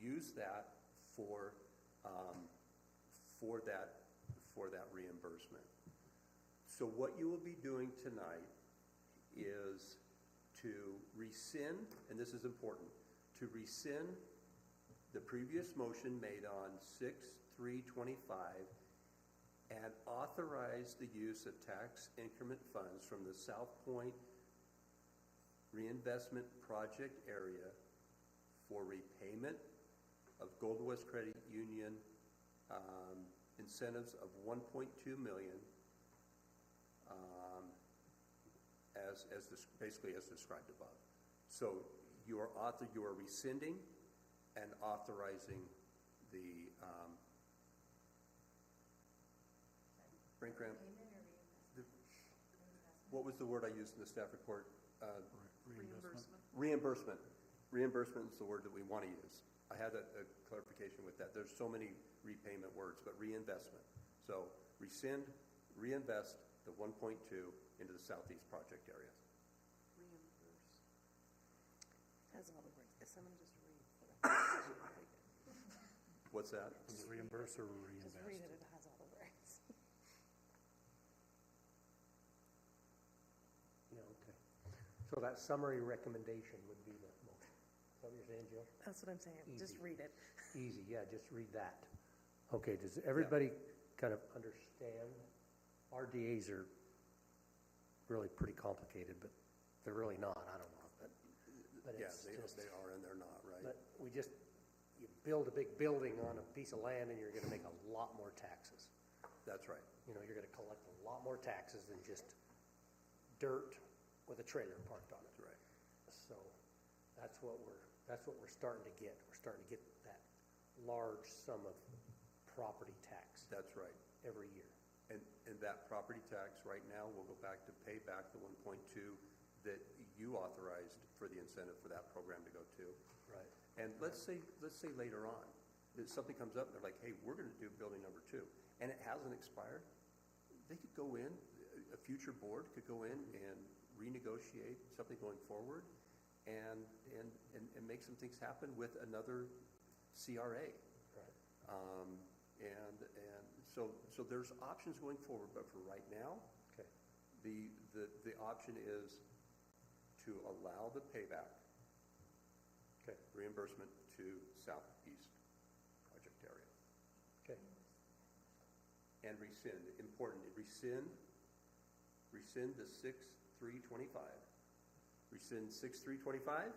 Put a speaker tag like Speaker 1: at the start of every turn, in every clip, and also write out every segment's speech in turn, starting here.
Speaker 1: use that for, um, for that, for that reimbursement. So what you will be doing tonight is to rescind, and this is important, to rescind the previous motion made on six, three, twenty-five and authorize the use of tax increment funds from the South Point reinvestment project area for repayment of Gold West Credit Union, um, incentives of one point two million, um, as, as, des- basically as described above. So you are author, you are rescinding and authorizing the, um,
Speaker 2: Payment
Speaker 1: Brinkram,
Speaker 2: or reimbursement?
Speaker 1: The-
Speaker 2: Reimbursement.
Speaker 1: what was the word I used in the staff report? Uh,
Speaker 3: Reimbursement.
Speaker 1: reimbursement. Reimbursement is the word that we want to use. I had a, a clarification with that. There's so many repayment words, but reinvestment. So rescind, reinvest the one point two into the southeast project area.
Speaker 3: Reimburse.
Speaker 4: Has all the words, If someone just read. it.
Speaker 1: What's that?
Speaker 3: Is it Reimburse or
Speaker 4: Just read it,
Speaker 3: reinvest?
Speaker 4: it has all the words.
Speaker 5: Yeah, okay. So that summary recommendation would be the motion. Is that what you're saying, Jill?
Speaker 4: That's what I'm saying, just
Speaker 5: Easy.
Speaker 4: read it.
Speaker 5: Easy, yeah, just read that. Okay, does everybody kind of understand? RDAs are really pretty complicated, but they're really not, I don't know, but, but
Speaker 1: Yeah,
Speaker 5: it's
Speaker 1: they,
Speaker 5: just.
Speaker 1: they are and they're not, right?
Speaker 5: But we just, you build a big building on a piece of land and you're gonna make a lot more taxes.
Speaker 1: That's right.
Speaker 5: You know, you're gonna collect a lot more taxes than just dirt with a trailer parked on it.
Speaker 1: That's right.
Speaker 5: So that's what we're, that's what we're starting to get. We're starting to get that large sum of property tax
Speaker 1: That's right.
Speaker 5: every year.
Speaker 1: And, and that property tax right now will go back to pay back the one point two that you authorized for the incentive for that program to go to.
Speaker 5: Right.
Speaker 1: And let's say, let's say later on, that something comes up, and they're like, hey, we're gonna do building number two, and it hasn't expired, they could go in, a- a future board could go in and renegotiate something going forward and, and, and, and make some things happen with another CRA.
Speaker 5: Right.
Speaker 1: Um, and, and so, so there's options going forward, but for right now,
Speaker 5: Okay.
Speaker 1: the, the, the option is to allow the payback
Speaker 5: Okay.
Speaker 1: reimbursement to southeast project area.
Speaker 5: Okay.
Speaker 1: And rescind, important, rescind, rescind the six, three, twenty-five. Rescind six, three, twenty-five?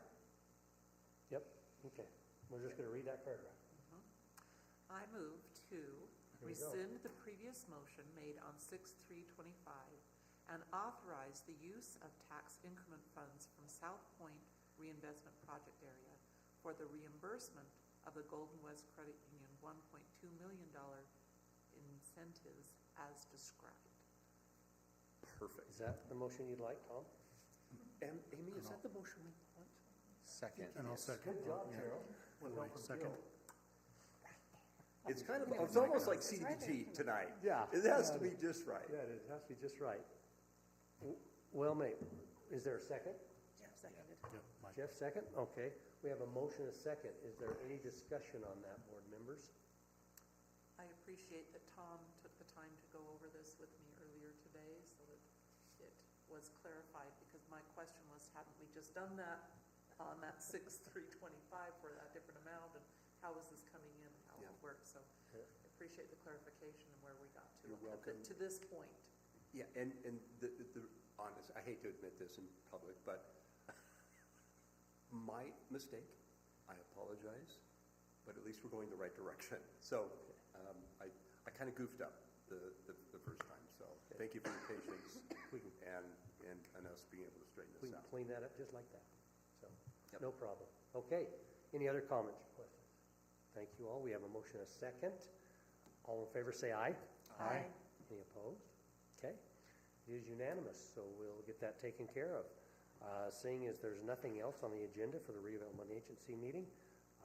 Speaker 5: Yep. Okay. We're just gonna read that paragraph.
Speaker 3: I move to
Speaker 5: Here we go.
Speaker 3: rescind the previous motion made on six three twenty-five and authorize the use of tax increment funds from South Point Reinvestment Project Area for the reimbursement of the Golden West Credit Union one point two million dollar incentives as described.
Speaker 1: Perfect.
Speaker 5: Is that the motion you'd like, Tom?
Speaker 1: And Amy, is that the motion we want?
Speaker 6: Second.
Speaker 1: And I'll second.
Speaker 5: Good job, Carol. Well, from
Speaker 6: second.
Speaker 5: Jill.
Speaker 1: It's kind of, it's almost like CDBG tonight.
Speaker 5: Yeah.
Speaker 1: It has to be just right.
Speaker 5: Yeah, it has to be just right. W- Well, mate, is there a second?
Speaker 4: Jeff seconded.
Speaker 5: Jeff, second? Okay. We have a motion, and a second. Is there any discussion on that, board members?
Speaker 3: I appreciate that Tom took the time to go over this with me earlier today, so that it was clarified, because my question was, haven't we just done that on that six, three twenty-five for that different amount, and how is this coming in, and how will it
Speaker 1: Yeah.
Speaker 3: work? So
Speaker 5: Yeah.
Speaker 3: I appreciate the clarification and where we got to.
Speaker 1: You're
Speaker 3: up
Speaker 1: welcome.
Speaker 3: To this point.
Speaker 1: Yeah, and, and the, the- the, honest, I hate to admit this in public, but my mistake, I apologize, but at least we're going the right direction. So, um, I, I kinda goofed up the, the, the first time, so thank you for your patience and, and, and us being able to straighten
Speaker 5: We
Speaker 1: this
Speaker 5: can
Speaker 1: out.
Speaker 5: clean that up just like that, so,
Speaker 1: Yep.
Speaker 5: no problem. Okay, any other comments or questions? Thank you all, we have a motion and a second. All in favor, say aye.
Speaker 3: Aye.
Speaker 5: Any opposed? Okay, it is unanimous, so we'll get that taken care of. Uh, Seeing as there's nothing else on the agenda for the redevelopment agency meeting,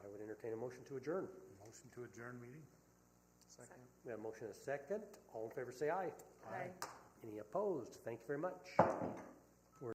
Speaker 5: I would entertain a motion to adjourn.
Speaker 6: Motion to adjourn meeting?
Speaker 3: Second.
Speaker 5: We have a motion and a second, all in favor, say aye.
Speaker 4: Aye.
Speaker 5: Any opposed? Thank you very much.